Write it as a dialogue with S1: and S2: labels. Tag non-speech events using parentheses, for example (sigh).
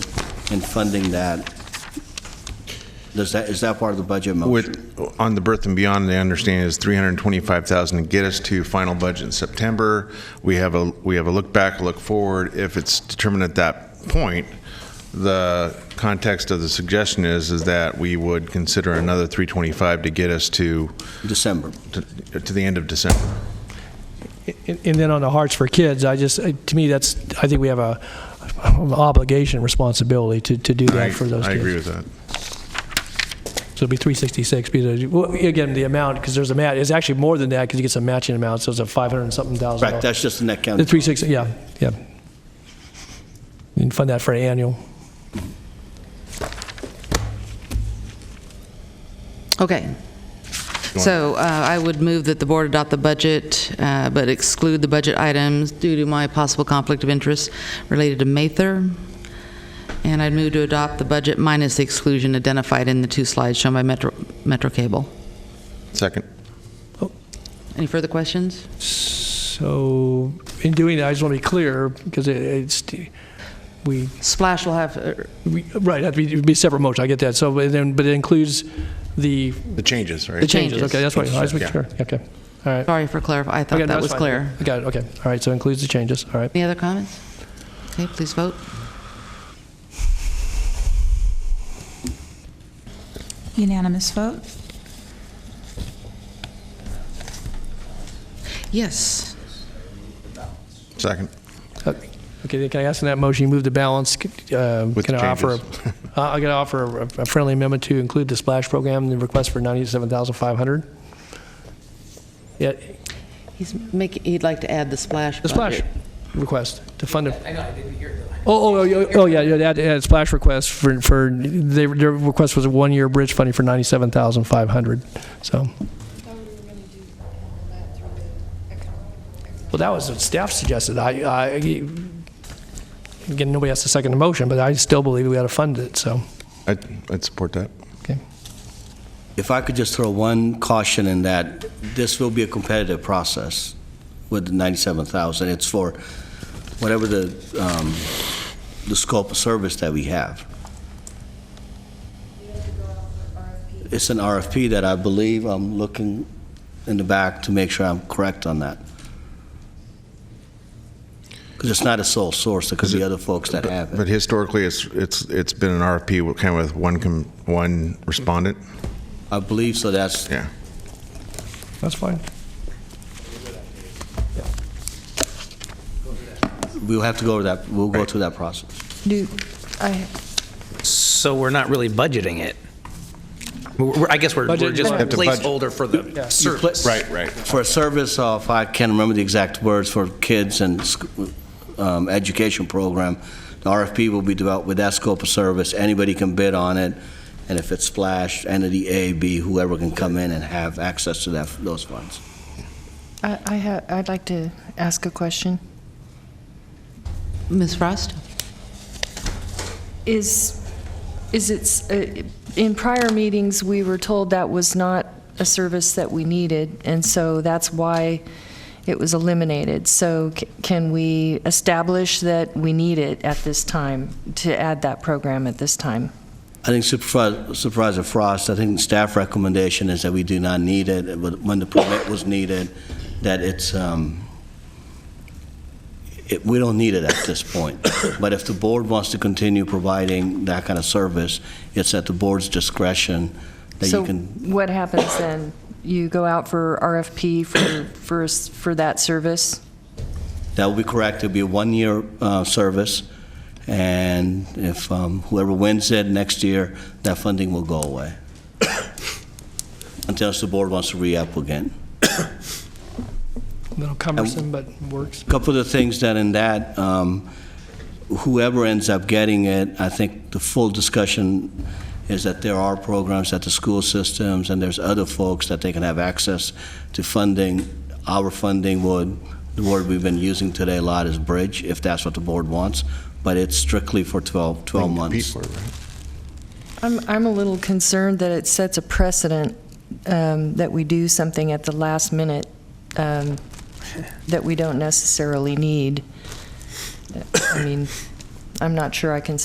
S1: and funding that, does that, is that part of the budget motion?
S2: With, on the Birth and Beyond, I understand is 325,000 to get us to final budget in September. We have a, we have a look back, a look forward. If it's determined at that point, the context of the suggestion is, is that we would consider another 325 to get us to,
S1: December.
S2: to to the end of December.
S3: And and then on the Hearts for Kids, I just, uh, to me, that's, I think we have a obligation, responsibility to, to do
S2: I
S3: that for those
S2: I
S3: kids.
S2: agree with that.
S3: So it'll be 366, because, well, again, the amount, because there's a match, it's actually more than that, because you get some matching amounts, so it's a 500 and something thousand.
S1: Correct, that's just the net
S3: The
S1: county.
S3: 360, yeah, yeah. And fund that for an annual.
S4: Okay. So uh, I would move that the board adopt the budget, uh, but exclude the budget items due to my possible conflict of interest related to Mather. And I'd move to adopt the budget minus the exclusion identified in the two slides shown by Metro Metro Cable.
S2: Second.
S4: Any further questions?
S3: So in doing that, I just want to be clear, because it- it's, we,
S4: Splash will have, uh,
S3: we- right, it'd be- it'd be a separate motion, I get that. So, but then, but it includes the
S2: The changes,
S3: The
S2: right?
S4: changes.
S3: changes, okay, that's why, I was making
S2: Yeah.
S3: sure, okay, all right.
S4: sorry for clarifying, I
S3: Okay,
S4: thought that
S3: that's
S4: was
S3: fine.
S4: clear.
S3: I Got it, okay, all right, so includes the changes, all right.
S4: Any other comments? Okay, please vote.
S5: Unanimous vote?
S4: Yes.
S2: Second.
S3: Uh, Okay, then can I ask in that motion, you move the balance, c- uh,
S2: With
S3: can I
S2: (laughs)
S3: offer, a- uh, I gotta offer a a friendly amendment to include the splash program, the request for 97,500? Yeah,
S4: He's making, he'd like to add the splash
S3: the
S4: budget.
S3: splash request to fund it. I know, I didn't hear it. Oh, oh, oh, oh, yeah, yeah, that, yeah, splash request for, for, their their request was a one-year bridge funding for 97,500, so.
S6: thought we were gonna do all that through the economic.
S3: Well, that was what staff suggested. I, I, again, nobody has to second the motion, but I still believe we ought to fund it, so,
S2: I'd, I'd support that.
S3: okay.
S1: If I could just throw one caution in that, this will be a competitive process with the 97,000. It's for whatever the, um, the scope of service that we have. It's an RFP that I believe, I'm looking in the back to make sure I'm correct on that. Because it's not a sole source, there could be other folks that have it.
S2: But historically, it's, it's, it's been an RFP with- kind of with one, com- one respondent.
S1: I believe, so that's,
S2: Yeah.
S3: That's fine.
S1: we'll have to go over that, we'll go through that process.
S5: Do, I,
S7: So we're not really budgeting it. We're- we're- I guess we're we're
S3: Budget-
S7: just
S3: You
S2: have to budget.
S7: placeholder for the service.
S2: Right, right.
S1: for a service of, I can't remember the exact words, for kids and sc- um, education program, the RFP will be developed with that scope of service, anybody can bid on it, and if it's splash, entity A, B, whoever can come in and have access to that, those funds.
S8: I, I ha- I'd like to ask a question.
S4: Ms. Frost?
S8: Is, is it's, uh, in prior meetings, we were told that was not a service that we needed, and so that's why it was eliminated. So c- can we establish that we need it at this time, to add that program at this time?
S1: I think Supervi- Supervisor Frost, I think the staff recommendation is that we do not need it, but when the permit was needed, that it's, um, it- we don't need it at this point. But if the board wants to continue providing that kind of service, it's at the board's discretion that you can,
S8: So what happens then? You go out for RFP for, for, s- for that service?
S1: that will be correct. It'll be a one-year uh, service, and if um, whoever wins it next year, that funding will go away. (coughs) Unless the board wants to re-up again.
S3: A little cumbersome, but works.
S1: couple of the things that in that, um, whoever ends up getting it, I think the full discussion is that there are programs at the school systems, and there's other folks that they can have access to funding. Our funding would, the word we've been using today a lot is bridge, if that's what the board wants, but it's strictly for 12, 12 months.
S2: Pete, right?
S8: I'm, I'm a little concerned that it sets a precedent um, that we do something at the last minute um, that we don't necessarily need. I mean, I'm not sure I can